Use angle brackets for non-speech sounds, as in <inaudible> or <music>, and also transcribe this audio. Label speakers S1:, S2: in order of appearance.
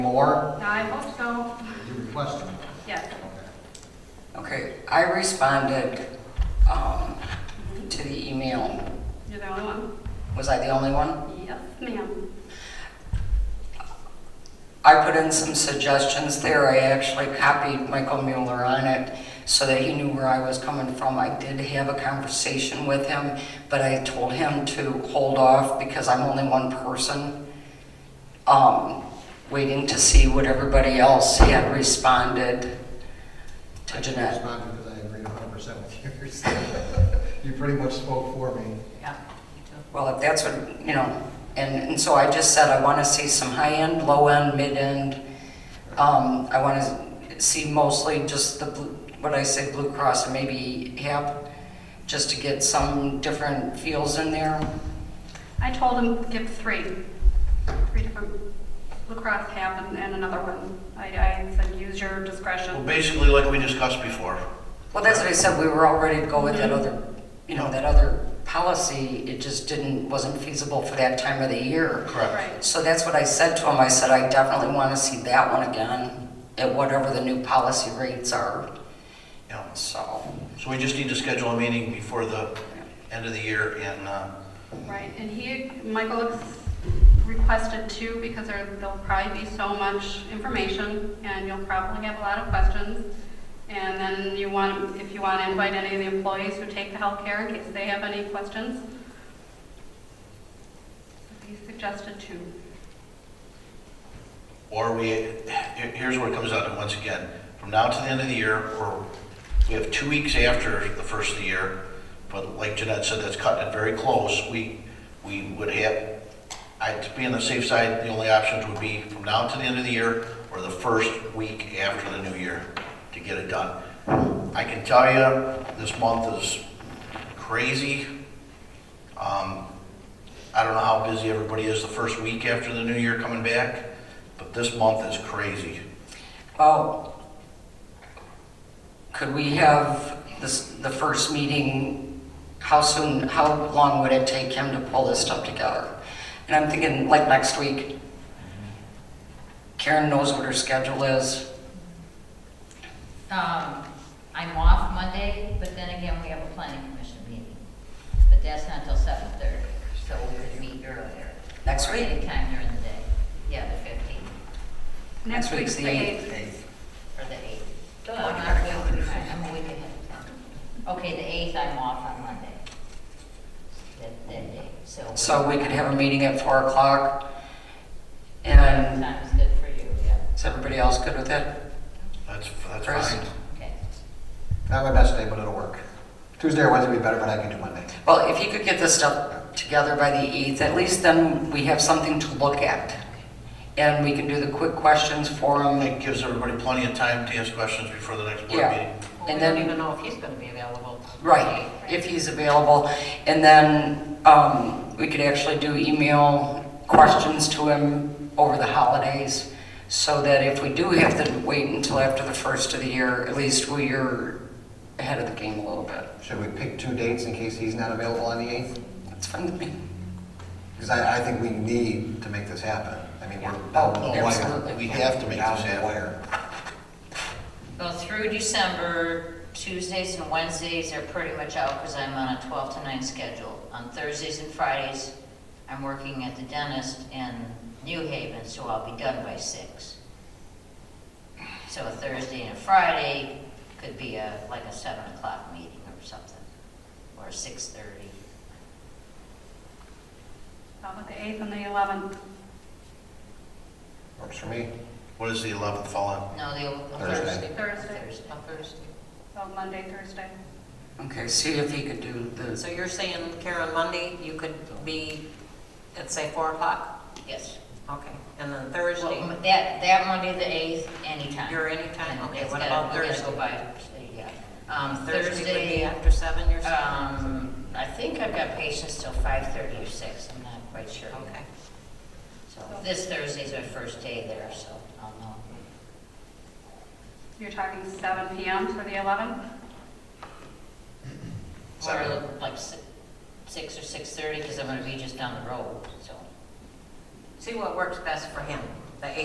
S1: More,
S2: I hope so,
S1: you requested.
S2: yes.
S3: Okay, I responded um, to the email.
S2: You're the only one?
S3: Was I the only one?
S2: Yes, ma'am.
S3: I put in some suggestions there. I actually copied Michael Mueller on it so that he knew where I was coming from. I did have a conversation with him, but I told him to hold off because I'm only one person, um, waiting to see what everybody else had responded
S1: I
S3: to
S1: just
S3: Jeanette.
S1: responded because I agreed hundred percent with yours. <laughs> You pretty much spoke for me.
S4: Yeah, me too.
S3: Well, if that's what, you know, and, and so I just said, I want to see some high-end, low-end, mid-end. Um, I want to see mostly just the, blue- what I say, Blue Cross and maybe HAP, just to get some different feels in there.
S2: I told him give three, three different, lacrosse half and and another one. I, I said, use your
S5: Well,
S2: discretion.
S5: basically, like we discussed before,
S3: Well, that's what I said, we were all ready to go with that other, you know, that other policy. It just didn't, wasn't feasible for that time of the year.
S5: correct?
S2: Right,
S3: So that's what I said to him. I said, I definitely want to see that one again at whatever the new policy rates are,
S5: Yeah,
S3: so.
S5: so we just need to schedule a meeting before the end of the year and, uh,
S2: right. And he, Michael ex- requested two because there, there'll probably be so much information and you'll probably have a lot of questions. And then you want, if you want to invite any of the employees who take the healthcare in case they have any questions. He suggested two.
S5: or we, here- here's where it comes out, to once again, from now to the end of the year, or we have two weeks after the first of the year, but like Jeanette said, that's cutting it very close, we, we would have, I, to be on the safe side, the only options would be from now to the end of the year, or the first week after the new year, to get it done. I can tell you, this month is crazy. Um, I don't know how busy everybody is the first week after the new year coming back, but this month is crazy.
S3: Oh, could we have this, the first meeting, how soon, how long would it take him to pull this stuff together? And I'm thinking like next week. Karen knows what her schedule is.
S4: Um, I'm off Monday, but then again, we have a planning commission meeting. But that's not till seven thirty, so we could meet earlier.
S3: Next
S4: Or
S3: week?
S4: Anytime during the day. Yeah, the fifteenth
S2: Next week's the eighth.
S4: or the eighth. No, I'm not really, I'm a week ahead of time. Okay, the eighth, I'm off on Monday. That, that day, so.
S3: So we could have a meeting at four o'clock. And
S4: Time is good for you, yeah.
S3: is everybody else good with it?
S5: That's, that's
S3: Chris?
S5: fine.
S4: Okay.
S1: Not my best day, but it'll work. Tuesday or Wednesday would be better, but I can do Monday.
S3: Well, if you could get this stuff together by the 8th, at least then we have something to look at. And we can do the quick questions for him.
S5: It gives everybody plenty of time to ask questions before the next board
S3: Yeah.
S5: meeting.
S3: And then,
S4: know if he's gonna be available.
S3: right, if he's available. And then um, we could actually do email questions to him over the holidays so that if we do have to wait until after the first of the year, at least we are ahead of the game a little bit.
S1: Should we pick two dates in case he's not available on the eighth?
S3: That's fine with me.
S1: Because I, I think we need to make this happen. I mean, we're down to the wire.
S5: No,
S3: Absolutely.
S5: Oh, We have to make
S1: Down
S5: this
S1: to the
S5: happen.
S1: wire.
S4: Well, through December, Tuesdays and Wednesdays are pretty much out because I'm on a 12 to 9 schedule. On Thursdays and Fridays, I'm working at the dentist in New Haven, so I'll be done by 6. So a Thursday and a Friday could be a, like a 7 o'clock meeting or something, or 6:30.
S2: How about the 8th and the 11th?
S1: Works for me.
S5: What does the 11th fall in?
S4: No, the...
S1: Thursday.
S2: Thursday.
S4: Thursday. Thursday.
S2: So Monday, Thursday.
S3: Okay, see if he could do the,
S6: So you're saying, Karen, Monday, you could be at, say, 4 o'clock?
S4: Yes.
S6: Okay, and then
S4: Well,
S6: Thursday,
S4: m- That, that Monday, the 8th, anytime.
S6: you're anytime,
S4: And
S6: okay,
S4: it's
S6: what
S4: gotta-
S6: about
S4: we gotta
S6: Thursday?
S4: go by, yeah. Um,
S6: Thursday would be
S4: Thursday,
S6: after 7, you're saying?
S4: um, I think I've got patients till 5:30 or 6, I'm not quite sure. yet.
S6: Okay.
S4: So this Thursday's my first day there, so I'll know.
S2: You're talking 7 PM for the 11th?
S4: Or
S5: Seven.
S4: like si- 6 or 6:30, because I'm gonna be just down the road, so.
S6: See what works best for him.